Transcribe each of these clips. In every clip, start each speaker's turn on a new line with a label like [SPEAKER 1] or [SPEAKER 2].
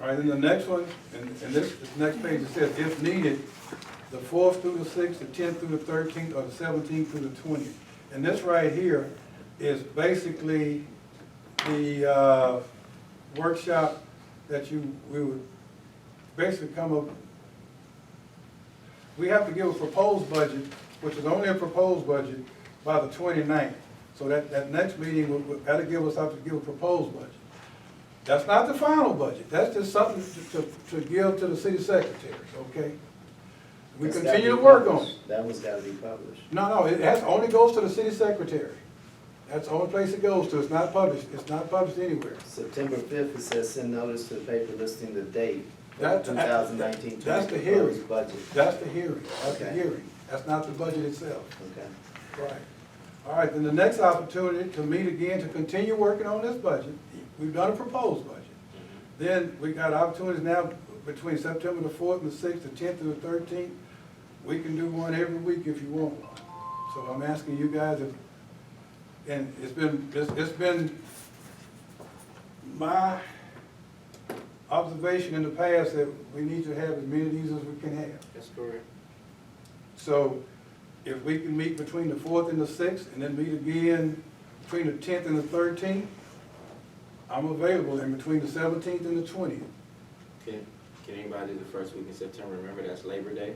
[SPEAKER 1] All right, then the next one, and, and this, this next page, it says, if needed, the fourth through the sixth, the tenth through the thirteenth, or the seventeenth through the twentieth. And this right here is basically the, uh, workshop that you, we would basically come up, we have to give a proposed budget, which is only a proposed budget, by the 29th. So that, that next meeting, would- would- that'll give us, up to give a proposed budget. That's not the final budget, that's just something to, to, to give to the city secretary, okay? We
[SPEAKER 2] That's
[SPEAKER 1] continue to
[SPEAKER 2] gotta be
[SPEAKER 1] work on it.
[SPEAKER 2] published. That one's gotta be published.
[SPEAKER 1] No, no, it has, only goes to the city secretary. That's the only place it goes to, it's not published, it's not published anywhere.
[SPEAKER 2] September fifth, it says send notice to the paper listing the date of
[SPEAKER 1] That-
[SPEAKER 2] two thousand nineteen
[SPEAKER 1] that's
[SPEAKER 2] twenty
[SPEAKER 1] the hearing.
[SPEAKER 2] proposed budget.
[SPEAKER 1] That's the hearing, that's the
[SPEAKER 2] Okay.
[SPEAKER 1] hearing, that's not the budget itself.
[SPEAKER 2] Okay.
[SPEAKER 1] Right. All right, then the next opportunity to meet again, to continue working on this budget, we've done a proposed budget. Then we got opportunities now between September the fourth and the sixth, the tenth and the thirteenth. We can do one every week if you want. So I'm asking you guys if, and it's been, it's, it's been my observation in the past that we need to have as many of these as we can have.
[SPEAKER 3] That's correct.
[SPEAKER 1] So if we can meet between the fourth and the sixth, and then meet again between the tenth and the thirteenth, I'm available in between the seventeenth and the twentieth.
[SPEAKER 3] Can, can anybody do the first week in September? Remember, that's Labor Day.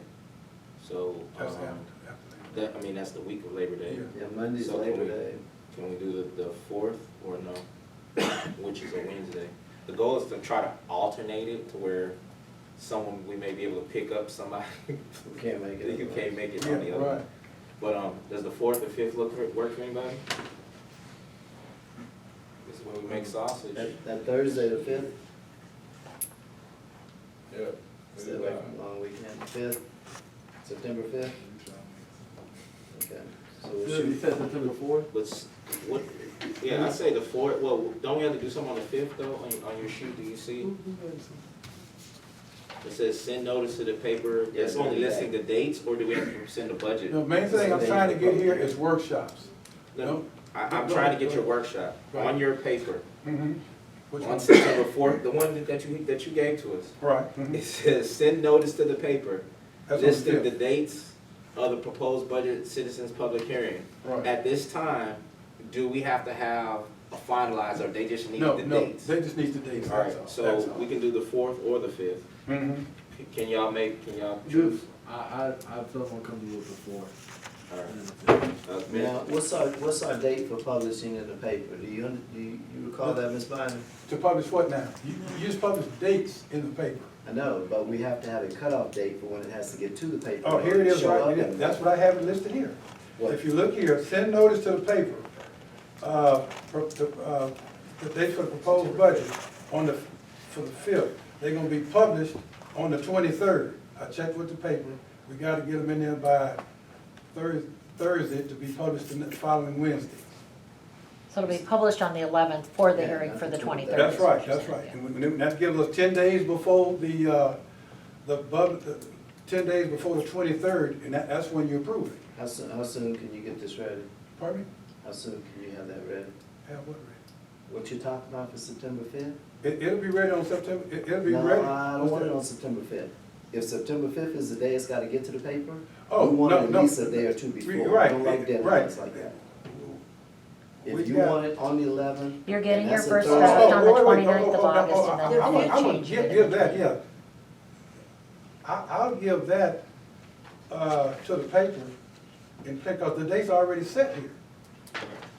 [SPEAKER 3] So,
[SPEAKER 1] That's
[SPEAKER 3] um,
[SPEAKER 1] after.
[SPEAKER 3] that, I mean, that's the week of Labor Day.
[SPEAKER 1] Yeah.
[SPEAKER 2] Yeah, Monday's
[SPEAKER 3] So
[SPEAKER 2] Labor
[SPEAKER 3] we-
[SPEAKER 2] Day.
[SPEAKER 3] Can we do the, the fourth or no? Which is a Wednesday. The goal is to try to alternate it to where someone, we may be able to pick up somebody
[SPEAKER 2] You can't make it.
[SPEAKER 3] who can't make it on the
[SPEAKER 1] Yeah,
[SPEAKER 3] other.
[SPEAKER 1] right.
[SPEAKER 3] one. But, um, does the fourth or fifth look, for- work for anybody? This is where we make sausage.
[SPEAKER 2] That, that Thursday, the fifth,
[SPEAKER 4] Yeah.
[SPEAKER 2] stay away from long weekend, fifth, September fifth, okay. So we'll
[SPEAKER 5] You
[SPEAKER 2] shoot,
[SPEAKER 5] said September fourth?
[SPEAKER 3] Let's, what, yeah, I say the fourth, well, don't we have to do something on the fifth though, on, on your sheet, do you see? It says send notice to the paper, that's only listing the dates, or do we have to send the budget?
[SPEAKER 1] The main thing I'm trying to get here is workshops.
[SPEAKER 3] No, I, I'm trying to get your workshop on your paper,
[SPEAKER 1] Mhm. Which
[SPEAKER 3] on
[SPEAKER 1] one?
[SPEAKER 3] September fourth, the one that you, that you gave to us.
[SPEAKER 1] Right. mhm.
[SPEAKER 3] It says send notice to the paper,
[SPEAKER 1] That's on the
[SPEAKER 3] listing the
[SPEAKER 1] fifth.
[SPEAKER 3] dates of the proposed budget citizens' public hearing.
[SPEAKER 1] Right.
[SPEAKER 3] At this time, do we have to have a finalizer, or they just need
[SPEAKER 1] No,
[SPEAKER 3] the
[SPEAKER 1] no,
[SPEAKER 3] dates?
[SPEAKER 1] they just need the dates,
[SPEAKER 3] All
[SPEAKER 1] that's all.
[SPEAKER 3] right, so we can do the fourth or the fifth.
[SPEAKER 1] can.
[SPEAKER 3] Can y'all make, can y'all choose?
[SPEAKER 5] Juice. I, I, I feel more comfortable with the fourth.
[SPEAKER 3] All right.
[SPEAKER 5] than the fifth.
[SPEAKER 3] Uh, Ms.
[SPEAKER 2] now, what's our, what's our date for publishing in the paper? Do you, do you you recall that, Ms. Bynum?
[SPEAKER 1] To publish what now? You, you just publish dates in the paper.
[SPEAKER 2] I know, but we have to have a cutoff date for when it has to get to the paper.
[SPEAKER 1] Oh, here it is,
[SPEAKER 2] Show
[SPEAKER 1] right,
[SPEAKER 2] up
[SPEAKER 1] here.
[SPEAKER 2] in-
[SPEAKER 1] that's what I have it listed here.
[SPEAKER 2] What?
[SPEAKER 1] If you look here, send notice to the paper, uh, pro- the, uh, the date for the proposed budget on the, for the fifth. They're gonna be published on the twenty-third. I checked with the paper, we gotta get them in there by Thursday, Thursday to be published the ne- following Wednesday.
[SPEAKER 6] So it'll be published on the eleventh for the
[SPEAKER 2] Yeah,
[SPEAKER 6] hearing for the
[SPEAKER 2] that's what-
[SPEAKER 6] twenty-third.
[SPEAKER 1] That's right, that's right. And we- and that gives us ten days before the, uh, the bud, the, ten days before the twenty-third, and that, that's when you approve it.
[SPEAKER 2] How soon, how soon can you get this ready?
[SPEAKER 1] Pardon me?
[SPEAKER 2] How soon can you have that ready?
[SPEAKER 1] Have what ready?
[SPEAKER 2] What you talking about for September fifth?
[SPEAKER 1] It, it'll be ready on September, it, will be
[SPEAKER 2] No,
[SPEAKER 1] ready.
[SPEAKER 2] I don't want it on September fifth. If September fifth is the day it's gotta get to the paper,
[SPEAKER 1] Oh,
[SPEAKER 2] we want
[SPEAKER 1] no,
[SPEAKER 2] it
[SPEAKER 1] no.
[SPEAKER 2] at least a day or two before.
[SPEAKER 1] Re-
[SPEAKER 2] We
[SPEAKER 1] right,
[SPEAKER 2] don't like
[SPEAKER 1] eh, right.
[SPEAKER 2] deadlines like that.
[SPEAKER 1] We
[SPEAKER 2] If you
[SPEAKER 1] got-
[SPEAKER 2] want it on the eleventh.
[SPEAKER 6] You're getting your first
[SPEAKER 1] Oh,
[SPEAKER 6] draft
[SPEAKER 1] oh,
[SPEAKER 6] on the
[SPEAKER 1] wait, wait, oh,
[SPEAKER 6] 29th of
[SPEAKER 1] oh, oh,
[SPEAKER 6] August,
[SPEAKER 1] oh,
[SPEAKER 6] and
[SPEAKER 1] I-
[SPEAKER 6] then
[SPEAKER 1] I would- I
[SPEAKER 6] you
[SPEAKER 1] would
[SPEAKER 6] change
[SPEAKER 1] give-
[SPEAKER 6] it.
[SPEAKER 1] Give that, yeah. I, I'll give that, uh, to the paper, and, because the date's already set here.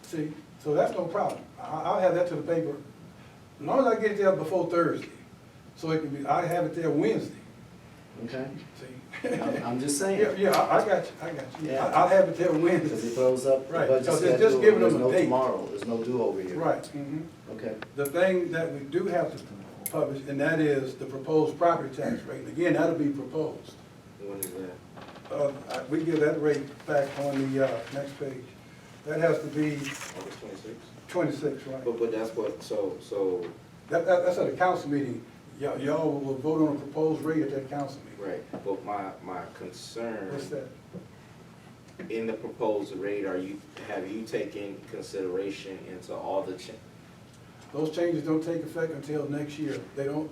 [SPEAKER 1] See, so that's no problem. I, I'll have that to the paper, as long as I get it there before Thursday, so it can be, I have it there Wednesday,
[SPEAKER 2] Okay,
[SPEAKER 1] see?
[SPEAKER 2] I'm, I'm just
[SPEAKER 1] Yeah,
[SPEAKER 2] saying,
[SPEAKER 1] yeah, I, I got you, I got you.
[SPEAKER 2] Yeah.
[SPEAKER 1] I- I'll have it there
[SPEAKER 2] because it
[SPEAKER 1] Wednesday,
[SPEAKER 2] throws up the
[SPEAKER 1] Right,
[SPEAKER 2] budget
[SPEAKER 1] 'cause it's just
[SPEAKER 2] schedule,
[SPEAKER 1] giving
[SPEAKER 2] there's
[SPEAKER 1] them a
[SPEAKER 2] no
[SPEAKER 1] date.
[SPEAKER 2] tomorrow, there's no do-over here.
[SPEAKER 1] right, mhm.
[SPEAKER 2] Okay,
[SPEAKER 1] the thing that we do have to publish, and that is the proposed property tax rate. And Again, that'll be proposed.
[SPEAKER 3] When is that?
[SPEAKER 1] Uh, I- We give that rate back on the uh, next page. That has to be
[SPEAKER 3] August twenty-sixth?
[SPEAKER 1] twenty-six, right?
[SPEAKER 3] But, but that's what, so, so,
[SPEAKER 1] That, that- that's at a council meeting. Y'all, y'all will vote on a proposed rate at that council meeting.
[SPEAKER 3] right, but my, my concern
[SPEAKER 1] What's that?
[SPEAKER 3] in the proposed rate, are you, have you taken consideration into all the cha-
[SPEAKER 1] Those changes don't take effect until next year. They don't,